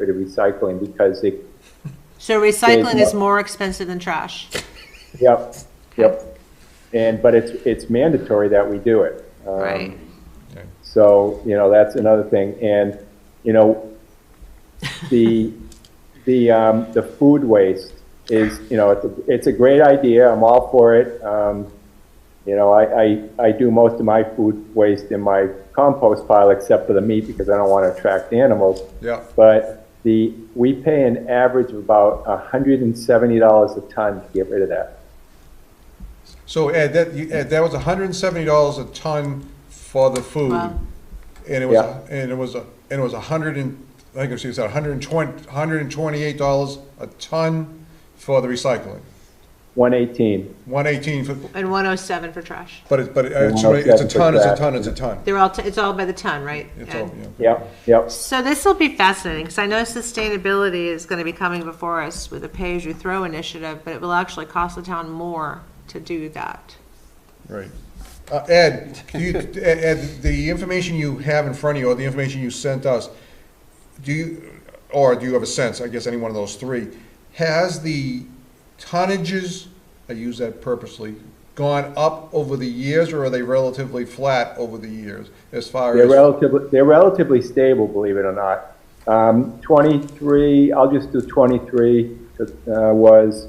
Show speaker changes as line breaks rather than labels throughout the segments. for the recycling because it,
So recycling
There's
is more expensive than trash.
yep, yep. And, but it's, it's mandatory that we do it. Um,
Right.
So, you know, that's another thing. And, you know, the, the, um, the food waste is, you know, it's a, it's a great idea. I'm all for it. Um, you know, I, I, I do most of my food waste in my compost pile except for the meat because I don't want to attract animals.
Yeah.
But the, we pay an average of about hundred and seventy dollars a ton to get rid of that.
So Ed, that, you- Ed, that was hundred and seventy dollars a ton for the food.
Wow.
And it was,
Yeah.
and it was, and it was a hundred and, I think it was, a hundred and twenty, hundred and twenty-eight dollars a ton for the recycling.
One eighteen.
One eighteen for,
And 107 for trash.
but it, but it- it's,
Yeah,
it's a ton, it's a
that.
ton, it's a ton.
They're all, t- it's all by the ton, right?
It's
Ed?
all, yeah.
Yep, yep.
So this will be fascinating because I know sustainability is going to be coming before us with a pay-as-you-throw initiative, but it will actually cost the town more to do that.
Right. Uh, Ed, do you, Ed- Ed, the information you have in front of you, or the information you sent us, do you, or do you have a sense, I guess any one of those three, has the tonnages, I use that purposely, gone up over the years, or are they relatively flat over the years, as far
They're
as?
relatively, they're relatively stable, believe it or not. Um, twenty-three, I'll just do twenty-three, uh, was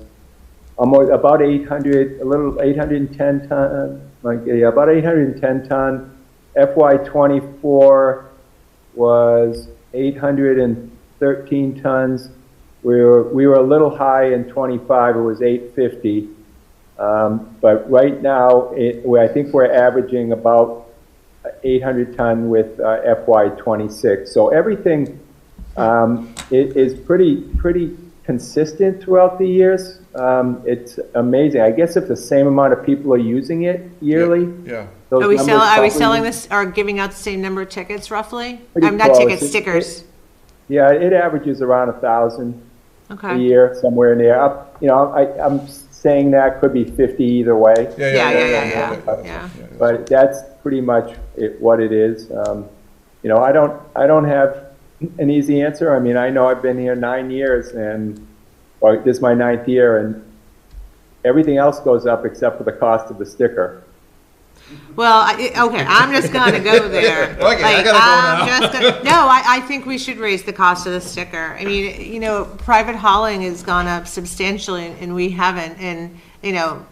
almost, about eight hundred, a little, eight hundred and ten ton, like, yeah, about eight hundred and ten ton. FY twenty-four was eight hundred and thirteen tons. We were, we were a little high in twenty-five, it was eight fifty. Um, but right now, it, we- I think we're averaging about 800 ton with uh, FY '26. So everything um, i- is pretty, pretty consistent throughout the years. Um, It's amazing. I guess if the same amount of people are using it yearly,
Yeah,
those
Are we
numbers
selling, are
probably-
we selling this, or giving out the same number of tickets roughly?
Pretty
I'm not
close.
tickets,
It-
stickers.
Yeah, it averages around 1,000 a
Okay.
year, somewhere in there. Up- You know, I, I'm saying that could be 50 either way.
yeah,
Yeah,
yeah,
yeah, yeah,
yeah,
yeah,
yeah.
yeah.
yeah.
But that's pretty much it, what it is. Um, you know, I don't, I don't have an easy answer. I mean, I know I've been here nine years and, or this is my ninth year and everything else goes up except for the cost of the sticker.
Well, I, it- okay, I'm just gonna go there.
Okay, I gotta go
I'm
now.
just gonna- No, I, I think we should raise the cost of the sticker. I mean, you know, private hauling has gone up substantially and- and we haven't, and, you know,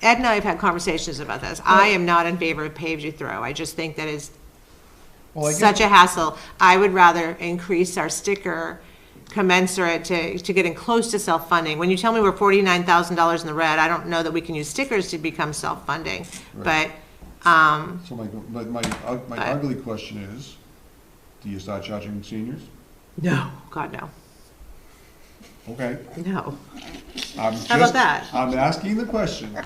Ed and I have had conversations about this. I am not in favor of pay-as-you-throw. I just think that is
Well, I guess-
such a hassle. I would rather increase our sticker commensurate to, to getting close to self-funding. When you tell me we're forty-nine thousand dollars in the red, I don't know that we can use stickers to become self-funding. But, um,
So my, but my, uh, my ugly question is, do you start charging seniors?
no, God, no,
Okay.
no.
How
about that?
I'm asking the question.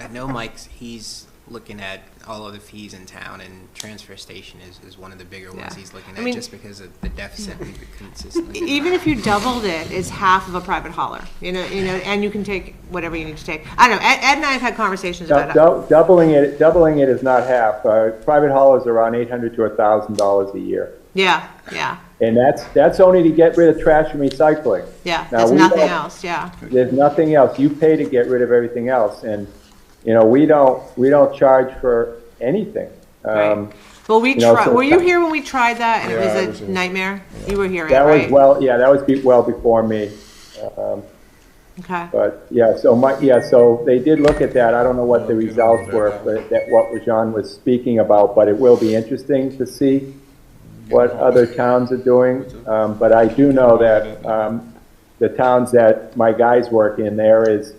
I know Mike's, he's looking at all of the fees in town, and transfer station is, is one of the bigger ones
Yeah.
he's
I
looking
mean- e-,
at, just because of the deficit we've been consistently.
Even if you doubled it, it's half of a private hauler, you know, you know, and you can take whatever you need to take. I don't know, Ed, Ed and I have had conversations
Dou-
about it.
dou- Doubling it, doubling it is not half. Uh, private haulers are around eight hundred to a thousand dollars a year.
Yeah, yeah,
And that's, that's only to get rid of trash and recycling.
yeah,
Now,
there's
we Um,
nothing
don't-
else, yeah.
There's nothing else. You pay to get rid of everything else, and, you know, we don't, we don't charge for anything. Um,
Right. Well, we
you know,
tried,
so-
were you here when we tried that and
Yeah, I
it was
was
a
here.
nightmare? You were here, Ed,
That was
right?
well, yeah, that was be- well before me. Um,
Okay,
But, yeah, so my, yeah, so they did look at that. I don't know what the
Okay.
results were, but that what Rajan was speaking about, but it will be interesting to see what other towns are doing. Um, But I do know that um, the towns that my guys work in, there is,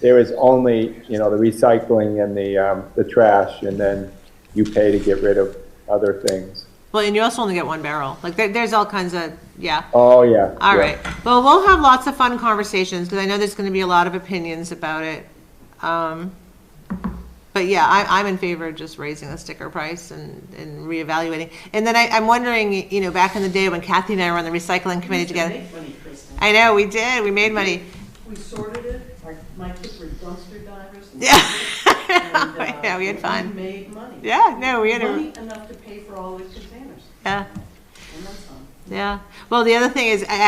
there is only, you know, the recycling and the, um, the trash, and then you pay to get rid of other things.
well, and you also only get one barrel, like, there, there's all kinds of, yeah.
Oh, yeah.
All
yeah.
right, well, we'll have lots of fun conversations, because I know there's gonna be a lot of opinions about it. Um, But yeah, I, I'm in favor of just raising the sticker price and, and reevaluating. And then I, I'm wondering, you know, back in the day when Kathy and I were on the recycling committee together,
Make money, Kristen.
I know, we did, we made money.
We sorted it, our, my kids were dumpster divers. and-
Yeah,
and, uh,
Yeah, we had fun.
We made money.
yeah, no, we had a,
Money enough to pay for all the containers,
yeah.
and then some.
yeah. Well, the other thing is, a-